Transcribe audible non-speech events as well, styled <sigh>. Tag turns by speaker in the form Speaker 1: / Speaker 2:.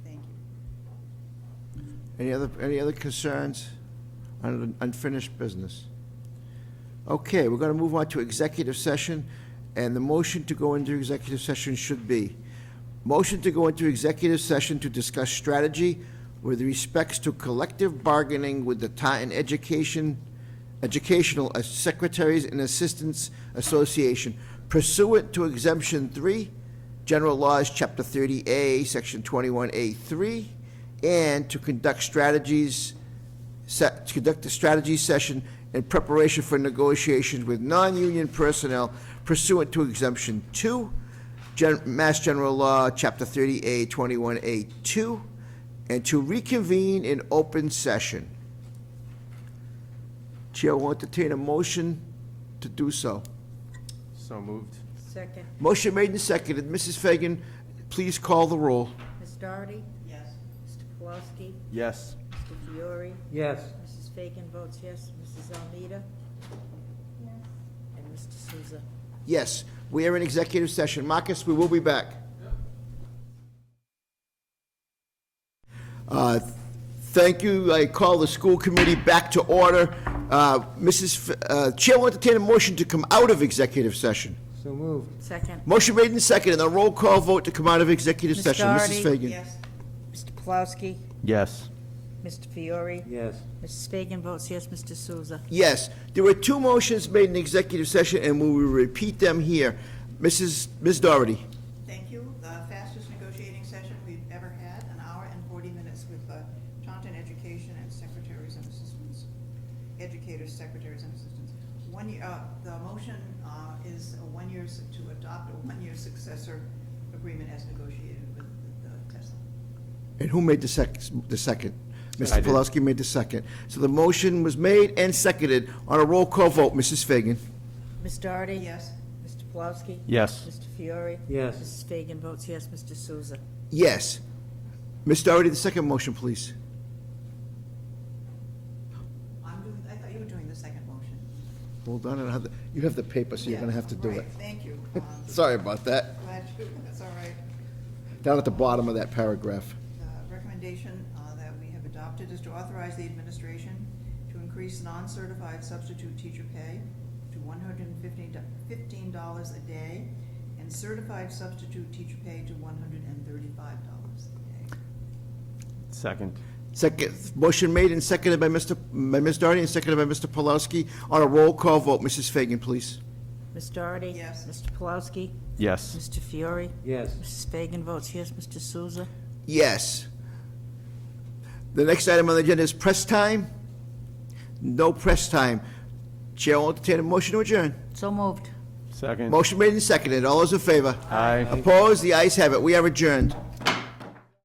Speaker 1: Any other, any other concerns on unfinished business? Okay, we're gonna move on to executive session, and the motion to go into executive session should be, motion to go into executive session to discuss strategy with respects to collective bargaining with the Taunton Education, Educational Secretaries and Assistants Association pursuant to exemption three, General Laws, Chapter 30A, Section 21A3, and to conduct strategies, se- to conduct a strategy session in preparation for negotiations with non-union personnel pursuant to exemption 2, Gen- Mass General Law, Chapter 30A, 21A2, and to reconvene in open session. Chair will entertain a motion to do so.
Speaker 2: So moved.
Speaker 3: Second.
Speaker 1: Motion made and seconded. Mrs. Fagan, please call the roll.
Speaker 3: Ms. Doherty? Yes. Mr. Pawlowski?
Speaker 2: Yes.
Speaker 3: Mr. Fiore?
Speaker 4: Yes.
Speaker 3: Mrs. Fagan votes yes. Mrs. Almeida? Yes. And Mr. Souza?
Speaker 1: Yes, we are in executive session. Marcus, we will be back. Uh, Thank you. I call the school committee back to order. Uh, Mrs., F- uh, Chair will entertain a motion to come out of executive session.
Speaker 4: So moved.
Speaker 3: Second.
Speaker 1: Motion made and seconded. A roll call vote to come out of executive
Speaker 3: Ms.
Speaker 1: session. Mrs.
Speaker 3: Doherty?
Speaker 1: Fagan.
Speaker 3: Mr. Pawlowski?
Speaker 2: Yes.
Speaker 3: Mr. Fiore?
Speaker 4: Yes.
Speaker 3: Mrs. Fagan votes yes. Mr. Souza?
Speaker 1: Yes, there were two motions made in executive session, and we will repeat them here. Mrs., Ms. Doherty.
Speaker 5: Thank you. The fastest negotiating session we've ever had, an hour and 40 minutes with the Taunton Education and Secretaries and Assistants, Educators, Secretaries and Assistants. One year, uh, the motion uh, is a one year, s- to adopt a one-year successor agreement as negotiated with the TESA.
Speaker 1: And who made the sec, the second?
Speaker 2: I
Speaker 1: Mr.
Speaker 2: did.
Speaker 1: Pulaski made the second. So the motion was made and seconded on a roll call vote. Mrs. Fagan?
Speaker 3: Ms. Doherty?
Speaker 5: Yes,
Speaker 3: Mr. Pawlowski?
Speaker 2: Yes.
Speaker 3: Mr. Fiore?
Speaker 4: Yes.
Speaker 3: Mrs. Fagan votes yes. Mr. Souza?
Speaker 1: Yes. Ms. Doherty, the second motion, please.
Speaker 5: I'm doing, I thought you were doing the second motion.
Speaker 1: Hold on, I don't have the, you have the paper, so you're gonna have to do
Speaker 5: Yeah,
Speaker 1: it.
Speaker 5: right.
Speaker 1: <laughs>
Speaker 5: Thank you. Um,
Speaker 1: Sorry about that.
Speaker 5: Glad you, <laughs> that's all right.
Speaker 1: Down at the bottom of that paragraph.
Speaker 5: The recommendation uh, that we have adopted is to authorize the administration to increase non-certified substitute teacher pay to one hundred and fifteen dollars a day and certified substitute teacher pay to one hundred and thirty-five dollars a day.
Speaker 2: Second.
Speaker 1: Second, motion made and seconded by Mr., by Ms. Doherty and seconded by Mr. Pulaski on a roll call vote. Mrs. Fagan, please.
Speaker 3: Ms. Doherty?
Speaker 5: Yes.
Speaker 3: Mr. Pawlowski?
Speaker 2: Yes.
Speaker 3: Mr. Fiore?
Speaker 4: Yes.
Speaker 3: Mrs. Fagan votes yes. Mr. Souza?
Speaker 1: Yes. The next item on the agenda is press time. No press time. Chair will entertain a motion to adjourn.
Speaker 3: So moved.
Speaker 2: Second.
Speaker 1: Motion made and seconded. All those in favor?
Speaker 2: Aye.
Speaker 1: Opposed? The ayes have it. We are adjourned.